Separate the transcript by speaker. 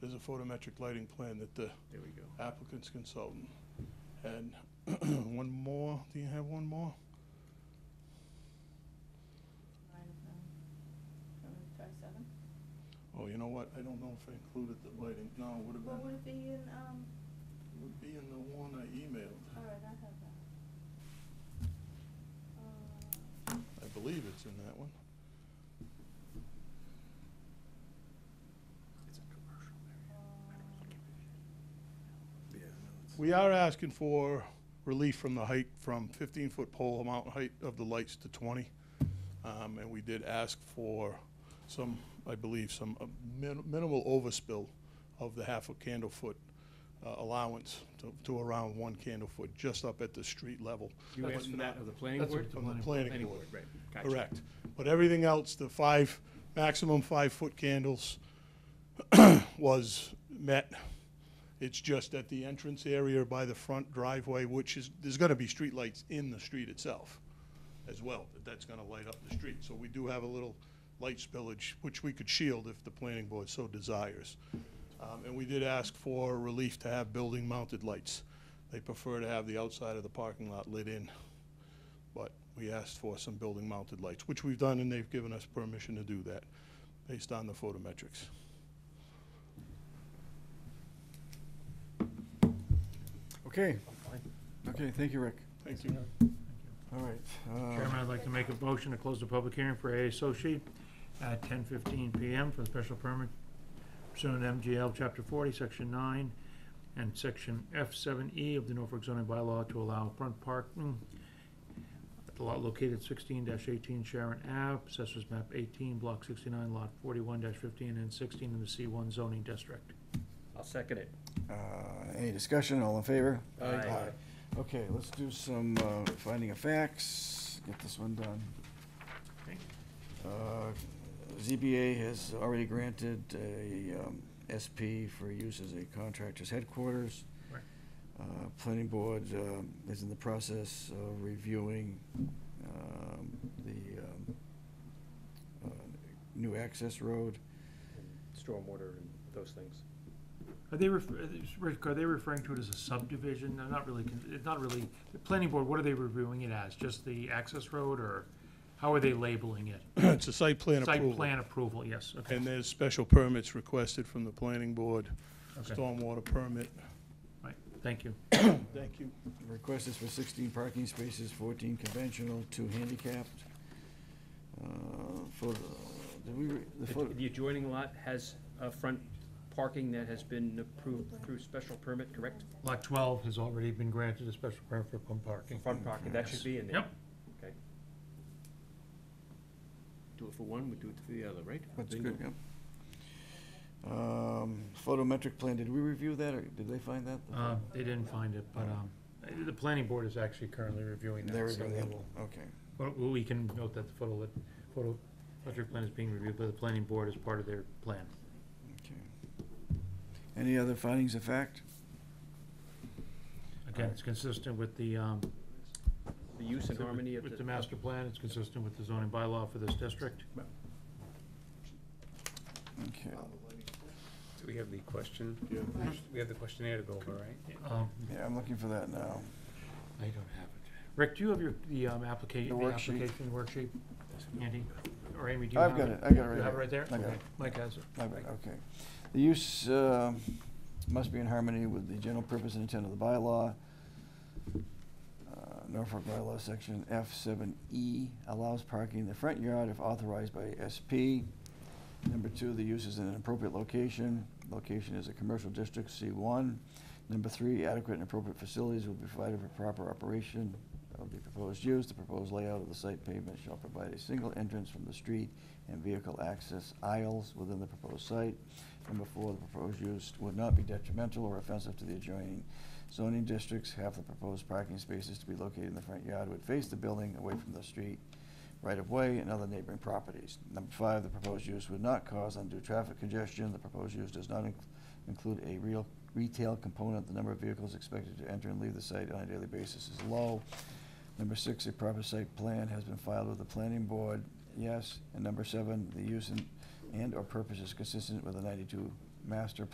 Speaker 1: there's a photometric lighting plan that the
Speaker 2: There we go.
Speaker 1: applicant's consultant. And one more, do you have one more?
Speaker 3: I don't know. Wanna try seven?
Speaker 1: Oh, you know what, I don't know if I included the lighting, no, it would have
Speaker 3: What
Speaker 1: been,
Speaker 3: would it be in, um,
Speaker 1: it would be in the one I
Speaker 3: all
Speaker 1: emailed.
Speaker 3: right, I have that. Uh,
Speaker 1: I believe it's in that one.
Speaker 2: It's a commercial
Speaker 3: um,
Speaker 2: area. Yeah.
Speaker 1: We are asking for relief from the height, from 15-foot pole amount height of the lights to 20. Um, And we did ask for some, I believe, some uh, min- minimal overspill of the half a candle foot uh, allowance to- to around one candle foot, just up at the street level.
Speaker 2: You
Speaker 1: But
Speaker 2: asked for
Speaker 1: not-
Speaker 2: that of the planning
Speaker 1: That's
Speaker 2: board?
Speaker 1: From the planning
Speaker 2: Planning
Speaker 1: board.
Speaker 2: board, right. Gotcha.
Speaker 1: Correct. But everything else, the five, maximum five-foot candles was met. It's just at the entrance area by the front driveway, which is, there's gonna be streetlights in the street itself as well, that that's gonna light up the street. So we do have a little light spillage, which we could shield if the planning board so desires. Um, and we did ask for relief to have building-mounted lights. They prefer to have the outside of the parking lot lit in but we asked for some building-mounted lights, which we've done, and they've given us permission to do that, based on the photometrics.
Speaker 4: Okay. Okay, thank you, Rick.
Speaker 1: Thank you.
Speaker 4: All right. uh,
Speaker 5: Chairman, I'd like to make a motion to close the public hearing for ASO sheet at ten fifteen PM for the special permit pursuant to MGL Chapter forty, Section nine, and Section F seven E of the Norfolk zoning bylaw to allow front parking at the lot located sixteen eighteen Sharon Ave, assessors map eighteen, block sixty-nine, lot forty-one fifteen and sixteen in the C one zoning district.
Speaker 2: I'll second it.
Speaker 4: uh, Any discussion, all in favor?
Speaker 2: Aye. Aye.
Speaker 4: Okay, let's do some uh, finding of facts, get this one done.
Speaker 5: Okay.
Speaker 4: Uh, ZBA has already granted a um, SP for use as a contractor's headquarters.
Speaker 5: Right.
Speaker 4: Uh, Planning Board um, is in the process of reviewing um, the um, uh, new access road.
Speaker 2: Stormwater and those things.
Speaker 5: Are they, ref- are they- Rick, are they referring to it as a subdivision? They're not really, con- it's not really, the planning board, what are they reviewing it as? Just the access road, or how are they labeling it?
Speaker 1: It's a site plan
Speaker 5: Site
Speaker 1: approval,
Speaker 5: plan approval, yes, okay.
Speaker 1: and there's special permits requested from the planning board,
Speaker 5: Okay.
Speaker 1: stormwater permit.
Speaker 5: Right, thank you.
Speaker 1: Thank you.
Speaker 4: Request is for sixteen parking spaces, fourteen conventional, two handicapped. Uh, Photo, did we, re- the photo,
Speaker 2: The adjoining lot has a front parking that has been approved through special permit, correct?
Speaker 5: Lot twelve has already been granted a special permit for pump parking.
Speaker 2: Front parking, that should be in there.
Speaker 5: Yep.
Speaker 2: Okay. Do it for one, we do it for the other, right?
Speaker 4: that's
Speaker 2: Bingo.
Speaker 4: good, yep. Um, Photometric plan, did we review that, or did they find that?
Speaker 5: Uh, they didn't find it, but, um, the planning board is actually currently reviewing
Speaker 4: They
Speaker 5: that, so
Speaker 4: reviewed
Speaker 5: we
Speaker 4: that,
Speaker 5: will.
Speaker 4: okay.
Speaker 5: But we can note that the photo, lit- photo, electric plan is being reviewed by the planning board as part of their plan.
Speaker 4: okay. Any other findings of fact?
Speaker 5: Again, it's consistent with the, um,
Speaker 2: The use and
Speaker 5: With-
Speaker 2: harmony of the.
Speaker 5: With the master plan, it's consistent with the zoning bylaw for this district.
Speaker 4: Okay,
Speaker 6: So we have the question,
Speaker 1: Yeah.
Speaker 6: we have the questionnaire to go over, right?
Speaker 5: Um,
Speaker 4: yeah, I'm looking for that now.
Speaker 5: I don't have it. Rick, do you have your, the application,
Speaker 4: The
Speaker 5: the
Speaker 4: worksheet.
Speaker 5: application worksheet? Andy, or Amy, do you have
Speaker 4: I've
Speaker 5: it?
Speaker 4: got it, I got it right
Speaker 5: You have it
Speaker 4: here.
Speaker 5: right there?
Speaker 4: I got
Speaker 5: Okay.
Speaker 4: it.
Speaker 5: Mike has it.
Speaker 4: All right, Okay. The use uh, must be in harmony with the general purpose and intent of the bylaw. Uh, Norfolk bylaw, section F7E allows parking in the front yard if authorized by SP. Number two, the use is in an appropriate location. Location is a commercial district, C1. Number three, adequate and appropriate facilities will be provided for proper operation of the proposed use. The proposed layout of the site pavement shall provide a single entrance from the street and vehicle access aisles within the proposed site. Number four, the proposed use would not be detrimental or offensive to the adjoining zoning districts. Half the proposed parking spaces to be located in the front yard would face the building away from the street right-of-way and other neighboring properties. Number five, the proposed use would not cause undue traffic congestion. The proposed use does not inc- include a real retail component. The number of vehicles expected to enter and leave the site on a daily basis is low. Number six, a proper site plan has been filed with the planning board, yes. And number seven, the use and, and/or purpose is consistent with the ninety-two master